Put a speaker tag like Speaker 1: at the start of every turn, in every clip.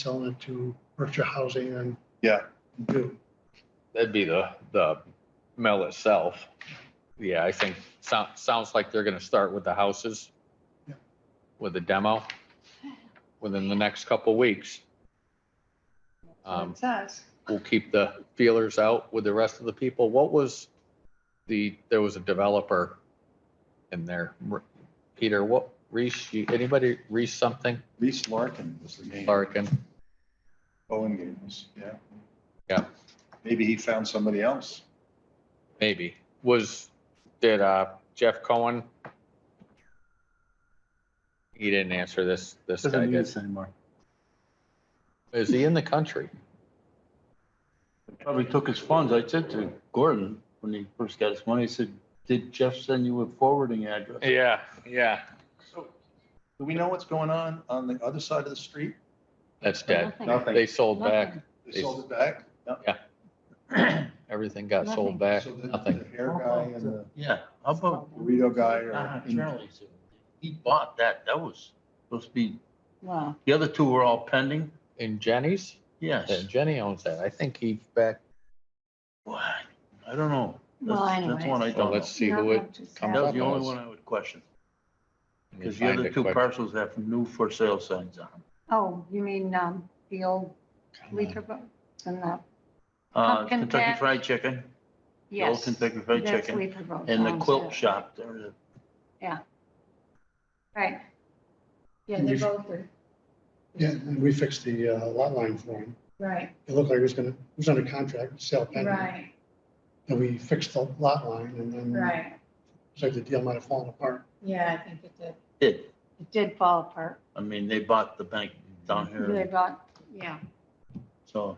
Speaker 1: selling it to Berkshire Housing and.
Speaker 2: Yeah.
Speaker 1: Do.
Speaker 3: That'd be the, the mill itself. Yeah, I think, sounds, sounds like they're gonna start with the houses.
Speaker 1: Yeah.
Speaker 3: With the demo within the next couple weeks. Um,
Speaker 4: It says.
Speaker 3: we'll keep the feelers out with the rest of the people. What was the, there was a developer in there. R- Peter, what, Reese, you- anybody, Reese something,
Speaker 2: Reese Larkin was the name.
Speaker 3: Larkin?
Speaker 2: Owen Gables, yeah.
Speaker 3: Yeah.
Speaker 2: Maybe he found somebody else.
Speaker 3: Maybe. Was, did uh Jeff Cohen? He didn't answer this, this guy
Speaker 5: Doesn't
Speaker 3: did.
Speaker 5: use anymore.
Speaker 3: Is he in the country?
Speaker 5: Probably took his funds. I said to Gordon, when he first got his money, I said, did Jeff send you a forwarding address?
Speaker 3: Yeah, yeah.
Speaker 2: So Do we know what's going on on the other side of the street?
Speaker 3: That's dead.
Speaker 2: Nothing.
Speaker 3: They sold back.
Speaker 2: They sold it back? No.
Speaker 3: Everything got sold
Speaker 6: Nothing.
Speaker 3: back.
Speaker 2: So the- The
Speaker 3: Nothing.
Speaker 2: hair guy and the
Speaker 5: Yeah, how about
Speaker 2: burrito guy
Speaker 5: uh,
Speaker 2: are in-
Speaker 5: Charlie's? He bought that. That was supposed to be,
Speaker 6: Wow.
Speaker 5: the other two were all pending.
Speaker 3: And Jenny's,
Speaker 5: Yes.
Speaker 3: and Jenny owns that. I think he's back.
Speaker 5: What? I don't know.
Speaker 6: Well,
Speaker 5: That's- That's one I
Speaker 6: anyways.
Speaker 5: don't
Speaker 3: Well,
Speaker 5: know.
Speaker 3: let's see who it. comes
Speaker 5: That was
Speaker 3: up
Speaker 5: the only
Speaker 3: as.
Speaker 5: one I would question,
Speaker 3: Let me
Speaker 5: because the
Speaker 3: find
Speaker 5: other
Speaker 3: it
Speaker 5: two
Speaker 3: quick.
Speaker 5: parcels have new for sale signs on them.
Speaker 6: Oh, you mean, um, the old
Speaker 3: Come on.
Speaker 6: Leaper boat and the,
Speaker 5: Uh,
Speaker 6: Pumpkin
Speaker 5: Kentucky
Speaker 6: patch.
Speaker 5: Fried Chicken, the old
Speaker 6: yes.
Speaker 5: Kentucky Fried
Speaker 6: that's
Speaker 5: Chicken,
Speaker 6: Leaper boat
Speaker 5: and the
Speaker 6: sounds, yeah.
Speaker 5: quilt shop, there, the
Speaker 6: Right.
Speaker 4: Yeah, they both are,
Speaker 1: Yeah, and we fixed the uh, lot line for him.
Speaker 4: right,
Speaker 1: It looked like it was gonna, it was under contract, sale pending.
Speaker 4: right,
Speaker 1: And we fixed the lot line and then
Speaker 6: Mm.
Speaker 1: it
Speaker 4: right.
Speaker 1: was like the deal might have fallen apart.
Speaker 4: Yeah, I think it did.
Speaker 5: did.
Speaker 6: It did fall apart.
Speaker 5: I mean, they bought the bank down
Speaker 6: They
Speaker 5: here,
Speaker 6: got, yeah,
Speaker 5: so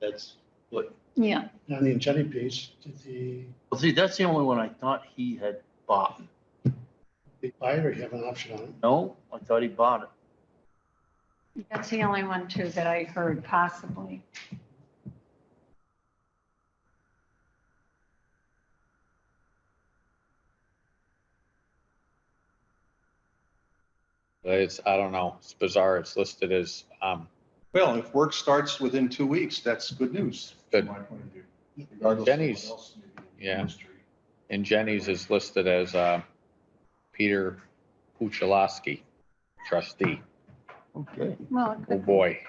Speaker 5: that's what,
Speaker 6: yeah.
Speaker 1: And on the Jenny piece, did the,
Speaker 5: well, see, that's the only one I thought he had bought.
Speaker 1: the buyer have an option on it?
Speaker 5: No, I thought he bought it.
Speaker 6: That's the only one too that I heard possibly.
Speaker 3: It's, I don't know. It's bizarre. It's listed as, um,
Speaker 2: Well, if work starts within two weeks, that's good news.
Speaker 3: Good.
Speaker 2: From my point of view. regardless of what
Speaker 3: Denny's.
Speaker 2: else may be in the
Speaker 3: Yeah.
Speaker 2: industry.
Speaker 3: and Jenny's is listed as, uh, Peter Puchalowski, trustee.
Speaker 5: Okay.
Speaker 6: Well, it
Speaker 3: Oh,
Speaker 6: could-
Speaker 3: boy.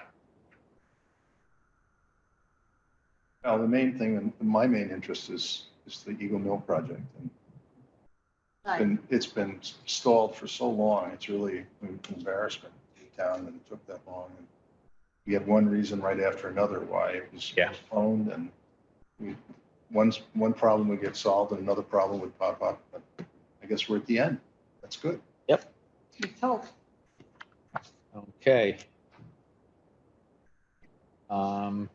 Speaker 2: Now, the main thing, and my main interest is, is the Eagle Mill project. And
Speaker 6: right.
Speaker 2: And it's been stalled for so long, it's really an embarrassment to the town that it took that long. And We had one reason right after another why it was
Speaker 3: Yeah.
Speaker 2: postponed and we, one's, one problem would get solved and another problem would pop up. But I guess we're at the end. That's good.
Speaker 6: It's hope.
Speaker 3: Okay. Um,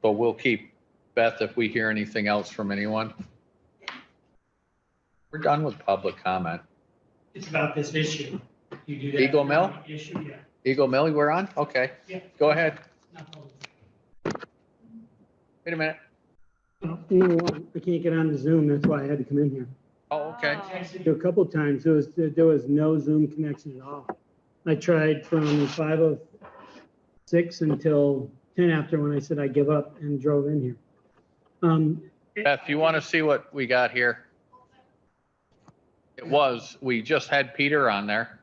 Speaker 3: but we'll keep, Beth, if we hear anything else from anyone. We're done with public comment.
Speaker 7: It's about this issue. You do that.
Speaker 3: Eagle Mill?
Speaker 7: Issue, yeah.
Speaker 3: Eagle Millie, we're on? Okay.
Speaker 7: Yeah.
Speaker 3: Go ahead.
Speaker 7: not public.
Speaker 3: Wait a minute.
Speaker 8: I can't get on Zoom, that's why I had to come in here.
Speaker 3: Oh, okay.
Speaker 8: There were A couple times, there was, there was no Zoom connection at all. I tried from five oh six until ten after when I said I give up and drove in here. Um,
Speaker 3: Beth, you want to see what we got here? It was, we just had Peter on there.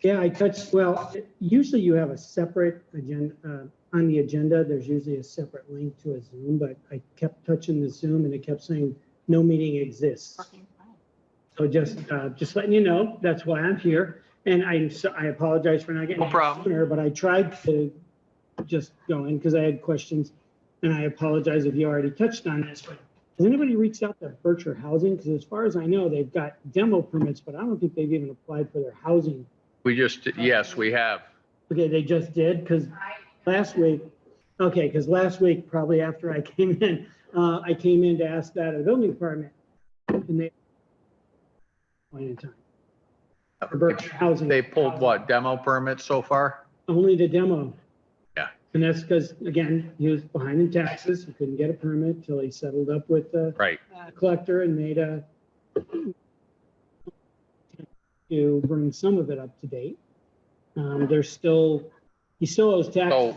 Speaker 8: Yeah, I touched, well, usually you have a separate agenda, uh, on the agenda, there's usually a separate link to a Zoom, but I kept touching the Zoom and it kept saying, no meeting exists. So just, uh, just letting you know, that's why I'm here. And I'm, so- I apologize for not getting.
Speaker 3: No problem.
Speaker 8: sooner, But I tried to just go in because I had questions. And I apologize if you already touched on this, but has anybody reached out to Berkshire Housing? Because as far as I know, they've got demo permits, but I don't think they've even applied for their housing.
Speaker 3: We just, yes, we have.
Speaker 8: Okay, they just did because last week, okay, because last week, probably after I came in, uh, I came in to ask that of the building department. And they. Point in time. For Berkshire Housing.
Speaker 3: They pulled what, demo permits so far?
Speaker 8: Only the demo.
Speaker 3: Yeah.
Speaker 8: And that's because, again, he was behind in taxes. He couldn't get a permit till he settled up with the
Speaker 3: Right.
Speaker 8: collector and made a to bring some of it up to date. Um, There's still He still owes taxes.
Speaker 3: So